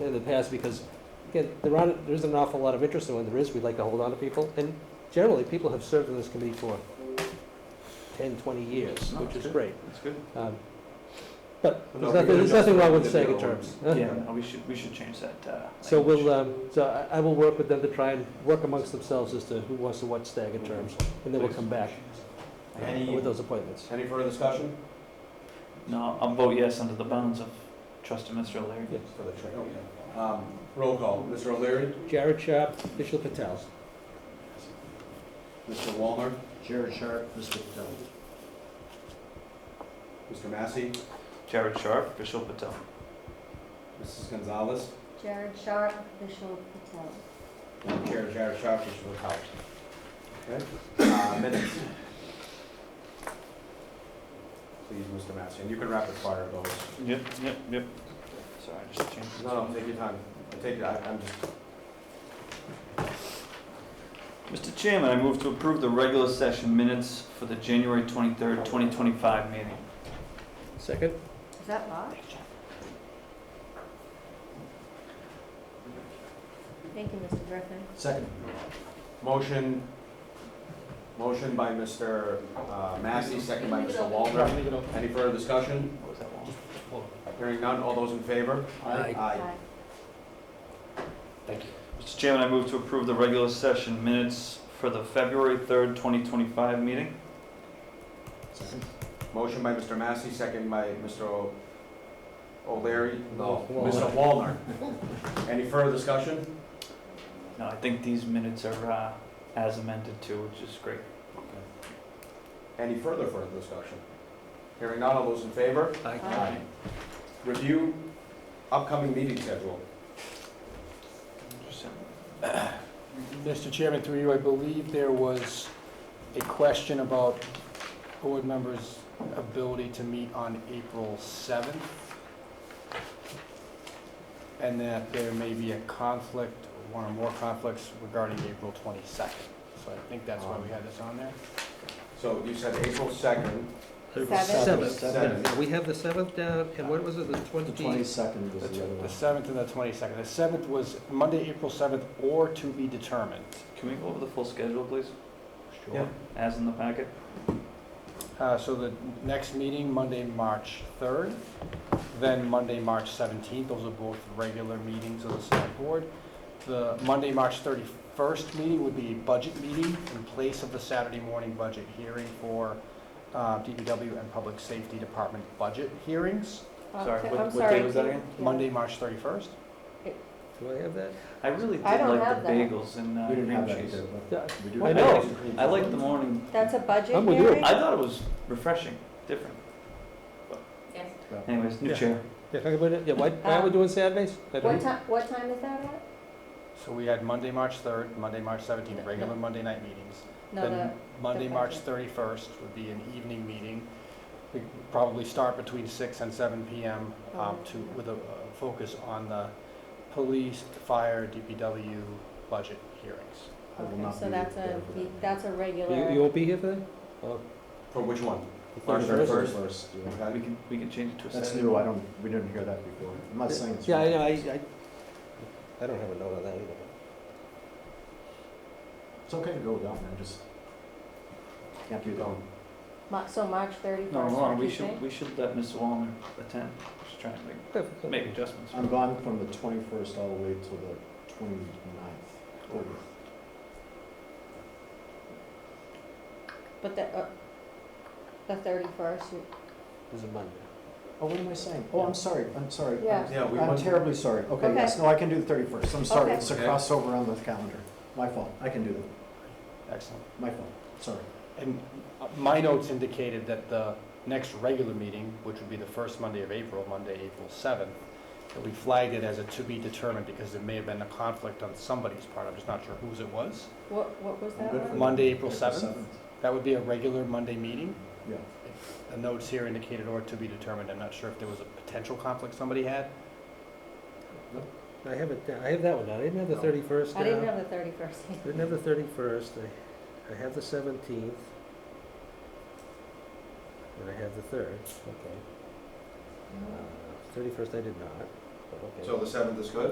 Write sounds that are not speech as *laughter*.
in the past because, again, there aren't, there isn't an awful lot of interest, and when there is, we'd like to hold on to people. And generally, people have served on this committee for 10, 20 years, No, which that's is good. great. That's good. Um, But No, there's we nothing, gotta there's nothing wrong with adjust second the other terms. Yeah, no, we should, we should change that. uh, *laughs* So language. we'll, um, so I I will work with them to try and work amongst themselves as to who wants to watch staggered terms, and then we'll come back uh, Any, with those appointments. any further discussion? No, I'll vote yes under the bounds of trustee Mr. O'Leary. Yeah. For the trail, yeah. Um, Roll call, Mr. O'Leary, Jared Sharp, Vishal Patel. Mr. Walner, Jared Sharp, Mr. Patel. Mr. Massey, Jared Sharp, Vishal Patel. Mrs. Gonzalez, Jared Sharp, Vishal Patel. and Chair Jared Sharp, which will help. Okay, uh, minutes. Please, Mr. Massey, and you can rapid fire those. Yep, yep, yep. Sorry, I just changed. it. No, no, take your time, take, your- I- I'm just, Mr. Chairman, I move to approve the regular session minutes for the January 23rd, 2025 meeting. Second? Is that Bob? Thank you, Mr. Griffin. Second. motion, motion by Mr. uh, Massey, second by Mr. Walner. Any further discussion? What was that one? Hearing none, all those in favor? Aye. Aye. Thank you. Mr. Chairman, I move to approve the regular session minutes for the February 3rd, 2025 meeting. Second. Motion by Mr. Massey, second by Mr. O- O'Leary? No. Oh, Walner. Mr. Walner. Any further discussion? No, I think these minutes are uh, as amended too, which is great. Any further further discussion? Hearing none, all those in favor? Aye. Review upcoming meeting schedule. Interesting. Mr. Chairman, through you, I believe there was a question about board members' ability to meet on April 7th, and that there may be a conflict, one or more conflicts regarding April 22nd. So I think that's why we had this on there. Um, So you said April 2nd. Seventh. Seventh. Now, we have the seventh down, and what was it, the The twenty? twenty-second was the other The one. 7th and the 22nd. The 7th was Monday, April 7th, or to be determined. Can we go over the full schedule, please? Yeah. As in the packet? Uh, So the next meeting, Monday, March 3rd, then Monday, March 17th, those are both regular meetings of the select board. The Monday, March 31st meeting would be a budget meeting in place of the Saturday morning budget hearing for uh, DPW and Public Safety Department budget hearings, Uh, Sorry, okay, what- I'm what sorry, day was that can- yeah. Monday, March 31st. Do I have that? I really did I don't like have the that. bagels and uh, We didn't have cream that cheese. either, Yeah, but we do. I have know. ice cream. I like the morning. That's a budget I'm with you. hearing? I thought it was refreshing, different. Yes. Anyways, new Yeah. chair. Yeah, talk about it, yeah, why, why are we doing Saturdays? I What don't- time, what time is that at? So we had Monday, March 3rd, Monday, March 17th, regular Monday night meetings. No, Then the, Monday, the March 31st would be an evening meeting. We probably start between six and seven PM um, Oh, to, yeah. with a uh, focus on the police, fire, DPW budget hearings. I will okay, not so be that's there a, for that. that's a You, you regular, won't be here for that? For which one? The March thirty-first? first. First, yeah. We Okay. can, we can change it to a That's Saturday. new, I don't, we didn't hear that before. I'm not saying it's. Yeah, I wrong. know, I, I, I don't have a note on that either. It's okay to go without, man, just can't do Keep that. going. Ma- so March No, thirty-first, hold on, what do we you should, think? we should let Ms. Wallner attend. She's trying to make, make adjustments. I'm gone from the twenty-first all the way till the twenty-ninth. But the, uh, the thirty-first, you, It's a Monday. Oh, what am I saying? Oh, I'm sorry, I'm sorry. I'm- Yeah. Yeah, we I'm went- terribly sorry. Okay, Okay. yes, no, I can do the thirty-first. I'm sorry, Okay. it's a Okay. crossover on the calendar. My fault, I can do that. Excellent. My fault, sorry. And uh, my notes indicated that the next regular meeting, which would be the first Monday of April, Monday, April 7th, that we flagged it as a to be determined because there may have been a conflict on somebody's part. I'm just not sure whose it was. what, what was I'm that good for one? that. Monday, April 7th? 7th, That would be a regular Monday meeting. Yeah. The notes here indicated or to be determined. I'm not sure if there was a potential conflict somebody had. I have it, down- I have that one down, I didn't have the thirty-first down. I didn't have the thirty-first. *laughs* I didn't have the thirty-first, I, I have the seventeenth. And I have the third, okay. Thirty-first I did not, but okay. So the seventh is good?